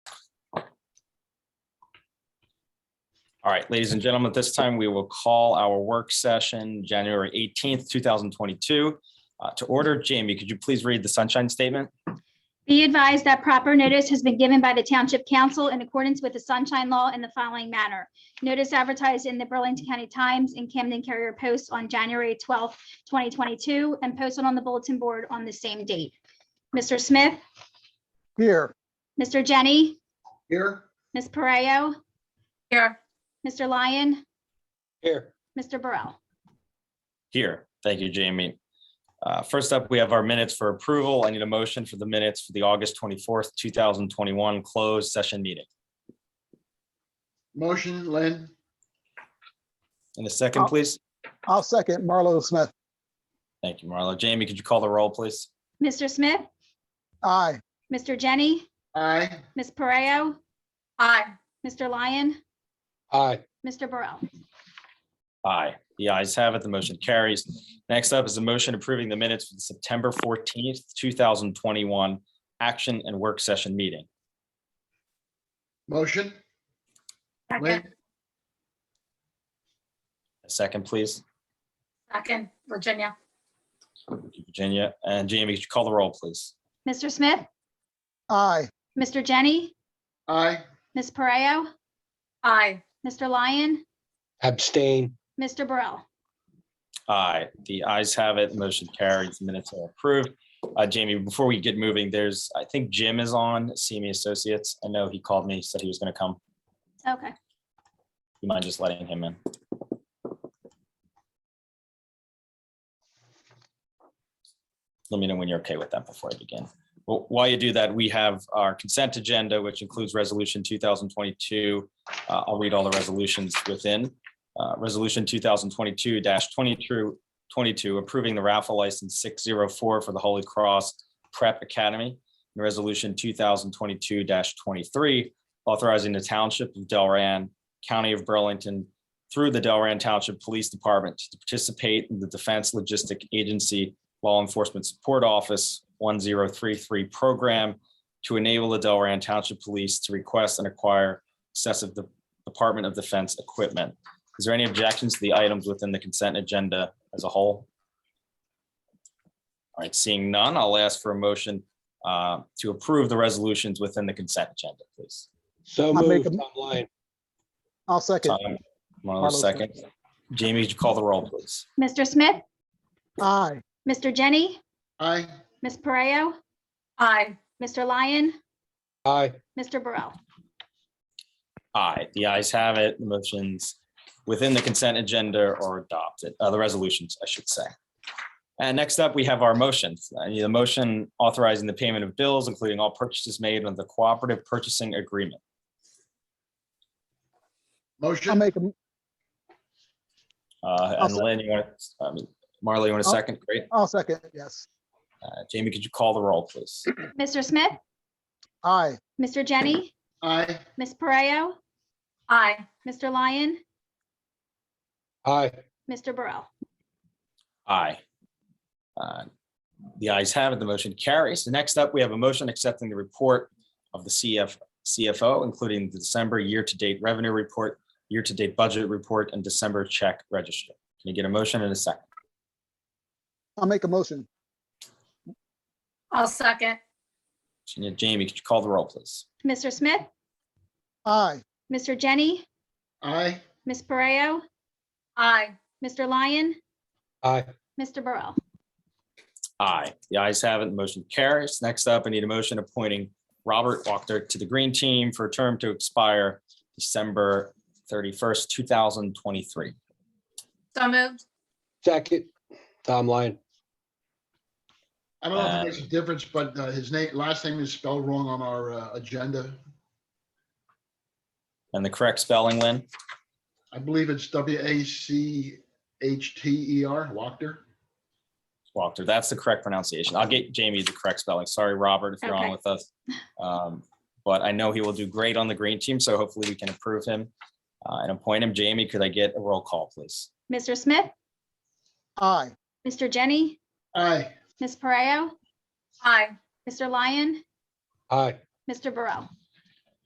All right, ladies and gentlemen, at this time, we will call our work session, January 18th, 2022. uh, To order, Jamie, could you please read the sunshine statement? Be advised that proper notice has been given by the Township Council in accordance with the Sunshine Law in the following manner. Notice advertised in the Burlington County Times and Camden Carrier Post on January 12th, 2022, and posted on the bulletin board on the same date. Mr. Smith, Here. Mr. Jenny, Here. Ms. Pareo, Here, Mr. Lyon, Here. Mr. Burrell. Here. Thank you, Jamie. Uh, First up, we have our minutes for approval. I need a motion for the minutes for the August 24th, 2021 closed session meeting. Motion, Lynn? In a second, Oh. please. I'll second Marlo Smith. Thank you, Marlo. Jamie, could you call the roll, please? Mr. Smith, Aye. Mr. Jenny, Aye. Ms. Pareo, aye. Mr. Lyon, Aye. Mr. Burrell. Aye. The ayes have it. The motion carries. Next up is a motion approving the minutes for the September fourteenth, two thousand twenty-one action and work session meeting. Motion, Lynn? Second, A second, please. second, Virginia. Virginia and Jamie, could you call the roll, please? Mr. Smith, Aye. Mr. Jenny, Aye. Ms. Pareo, Aye, Mr. Lyon, Abstain, Mr. Burrell. Aye. The ayes have it. Motion carries. Minutes are approved. Uh, Jamie, before we get moving, there's, I think Jim is on, CME Associates. I know he called me, said he was gonna come. Okay, You mind just letting him in? Let me know when you're okay with that before I begin. Well, while you do that, we have our consent agenda, which includes resolution two thousand twenty-two. Uh, I'll read all the resolutions within. Uh, Resolution two thousand twenty-two 22 approving the raffle license six zero four for the Holy Cross Prep Academy. And resolution two thousand twenty-two twenty-three, authorizing the township of Delran County of Burlington through the Delran Township Police Department to participate in the Defense Logistic Agency Law Enforcement Support Office 1033 program to enable the Delran Township Police to request and acquire excessive De- Department of Defense equipment. Is there any objections to the items within the consent agenda as a whole? All right, seeing none, I'll ask for a motion uh, to approve the resolutions within the consent agenda, please. so I'll make moved, a- Tom Lyon. I'll second. Tom, Marlo, Marlo, second. Jamie, could you call the roll, please? Mr. Smith, Aye. Mr. Jenny, Aye. Ms. Pareo, aye, Mr. Lyon, Aye, Mr. Burrell. Aye, the ayes have it. The motions within the consent agenda are adopted, uh, the resolutions, I should say. And next up, we have our motions. I need a motion authorizing the payment of bills, including all purchases made under the cooperative purchasing agreement. I'll Motion, make, a. Uh, I'll and Lynn, you want, to? I mean, Marla, you want a I'll- second? Great. I'll second, yes. Uh, Jamie, could you call the roll, please? Mr. Smith, Aye. Mr. Jenny, aye. Ms. Pareo, aye, Mr. Lyon, aye, Mr. Burrell. Aye. Uh, The ayes have it, the motion carries. The next up, we have a motion accepting the report of the CF, CFO, including the December year-to-date revenue report, year-to-date budget report, and December check register. Can you get a motion in a second? I'll make a motion. I'll second, Jamie, could you call the roll, please? Mr. Smith, Aye. Mr. Jenny, Aye. Ms. Pareo, aye, Mr. Lyon, aye, Mr. Burrell. Aye. The ayes have it, the motion carries. Next up, I need a motion appointing Robert Walker to the Green Team for a term to expire December thirty-first, two thousand twenty-three. so moved, second, Tom Lyon. I don't know if Aye. it makes a difference, but uh, his name, last name is spelled wrong on our uh, agenda. And the correct spelling, Lynn? I believe it's W A C H T E R, Wachter. Walker, that's the correct pronunciation. I'll get Jamie the correct spelling. Sorry, Robert, if you're on Okay. with us. Um, But I know he will do great on the green team, so hopefully we can approve him uh, and appoint him. Jamie, could I get a roll call, please? Mr. Smith, Aye. Mr. Jenny, Aye. Ms. Pareo, aye, Mr. Lyon, Aye, Mr. Burrell.